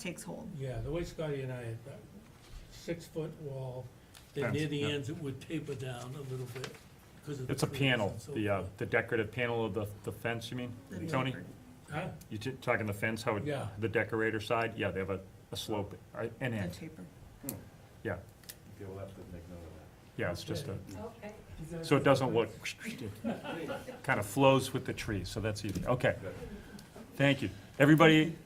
takes hold. Yeah, the way Scotty and I had that six-foot wall, then Fence, near the yeah. ends it would taper down a little bit because of the. It's a trees panel, and so the, uh, forth. the decorative panel of the, the fence, you mean, The Tony? tapered. Huh? You t- talking the fence, how, it- Yeah. the decorator side, yeah, they have a, a slope, uh, an The end, taper. yeah, Okay, we'll have to make note of that. yeah, it's just a, Okay. so it doesn't look, kind of flows with the trees, so that's easy, okay. Thank you. Everybody,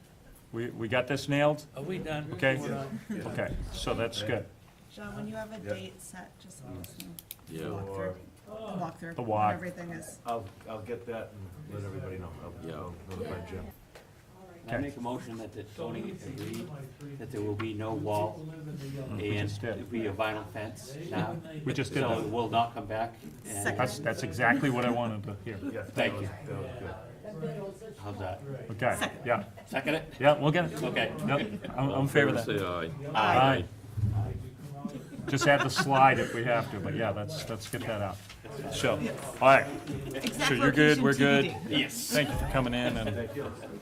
we, we got this nailed? Are we done? Okay. We're done. Okay, so that's good. John, when you have a Yeah. date set, just let us know. Yeah. The walkthrough. The walkthrough. The walk. when Everything is. I'll, I'll get that and let everybody know. I'll- Yeah. I'll notify Jim. Okay. I make a motion that the Tony agreed that there will be no wall Mm. Mm-hmm. We and just did. it'll be a vinyl fence now. We just did So that. it will not come back and That's, that's exactly what I wanted to hear. Yeah, that Thank was- you. That was good. how's that? Okay, yeah, Second it? yeah, we'll get it. Okay. Yep, I'm, I'm in favor of that. Say Aye. aye. Just add the slide if we have to, but yeah, let's, let's get that out. So, all right, Exact so you're good, location we're good. TBD. Yes. Thank you for coming in and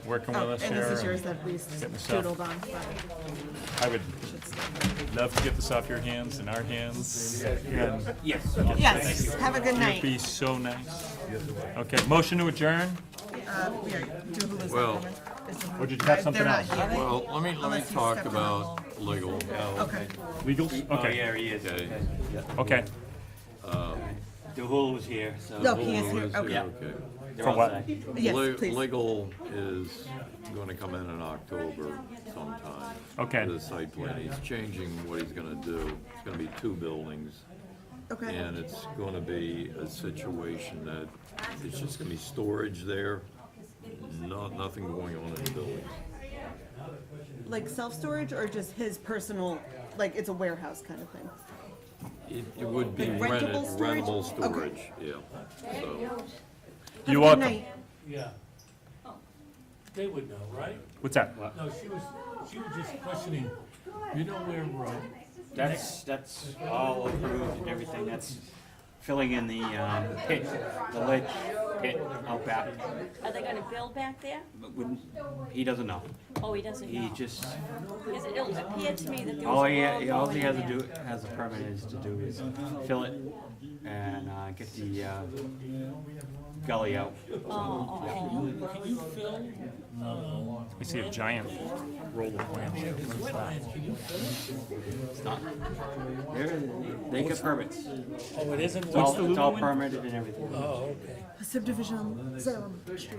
working Oh, with us and this is here. yours that we getting stuff. doodled on. but I would should stay. love to get this off your hands and our hands. And Yes. Yes, have a good it'd be night. so nice. Okay, motion to adjourn? Uh, we are- do who is Well- coming? Is the- Or did you have They're something not else? here. Well, let me, let me Unless you talk step on about legal. Okay. Legal? Okay, Oh, Yeah, he is. Okay. Okay. okay. DeHul was here, so. No, he is Oh, here. is he? Okay. They're For all what? set. Le- Yes, please. Legal is gonna come in in October sometime. Okay. The site plan, he's changing what he's gonna do. It's gonna be two buildings. Okay. And it's gonna be a situation that it's just gonna be storage there, not, nothing going on in the building. Like self-storage or just his personal, like it's a warehouse kind of thing? It, it would be Like rented, rentable storage? rentable storage, Okay. yeah, so. You're Have a good welcome. night. Yeah. They would know, right? What's that? No, she was, she was just questioning, you know where we're at? That's, that's all approved and everything, that's filling in the, um, pit, the ledge pit out back. Are they gonna build back there? But wouldn't- He doesn't know, Oh, he doesn't know. he just, Because it appeared to me that there all was he, a wall all going he in has to there. do, has a permit is to do is fill it and, uh, get the, uh, gully out. Oh, oh, oh. Can you fill, um, We see a giant roll of plans. wetlands, can you fill it? It's not, they're- they get permits, Oh, it isn't it's all, wetland? it's all permitted and everything. Oh, okay. Subdivision on Salem Street.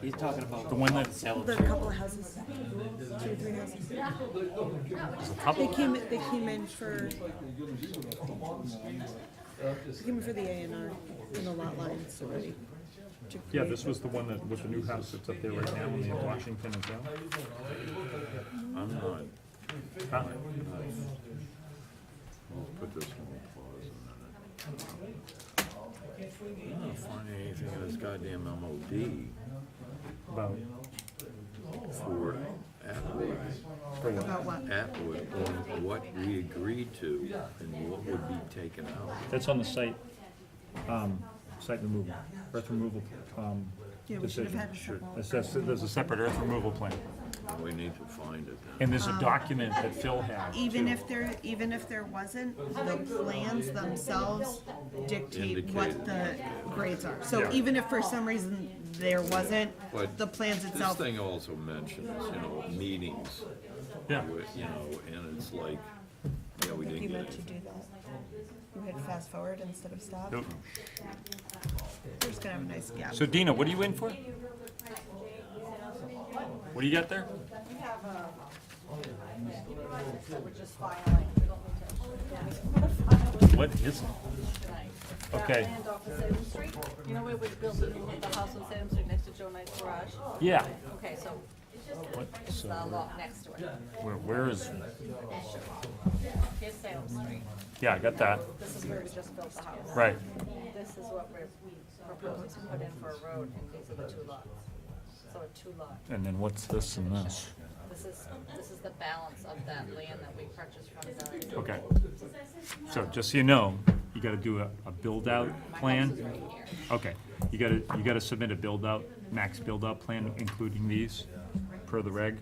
He's talking about. The one that- Salem The Street. couple of houses, two or three houses. They came, they came in for. They came in for the A and R and the lot lines already. Yeah, this was the one that, with the new house that's up there right now in the Washington and down. I'm not, I'll Huh? put this one on pause a minute. I'm not finding anything in this goddamn MOD About, for Atwood, for what? About what? Atwood, on what we agreed to and what would be taken out. That's on the site, um, site removal, earth removal, um, Yeah, we should have decision. had a couple. That's- that's- There's a separate earth removal plan. We need to find it now. And there's a document that Phil had. Um, Even too. if there, even if there wasn't, the plans themselves dictate what Indicate. the grades are. So Yeah. even if for some reason there wasn't, But the plans This itself, thing also mentions, you know, meetings, Yeah, with- you know, and it's like, yeah, we you didn't meant get to it. do that. You hit fast forward instead of stop. Nope. We're just gonna have a nice gap. So Dina, what are you in for? What do you got there? um, uh, What is it? Okay, oh. Land off of Salem Street, you know where we're building the house on Salem Street next to Joe Knight's garage? yeah. Okay, so What, it's so, the lot next to it. where, where is, Here's Salem Street. yeah, I got that, This is where we just built the house. right. This is what we're proposing to put in for a road, and these are the two lots. So a two lot. And then what's this and this? This is, this is the balance of that land that we purchased from the. Okay. So just so you know, you gotta do a, a build-out plan. Okay, you gotta, you gotta submit a build-out, max build-out plan, including these, per the reg.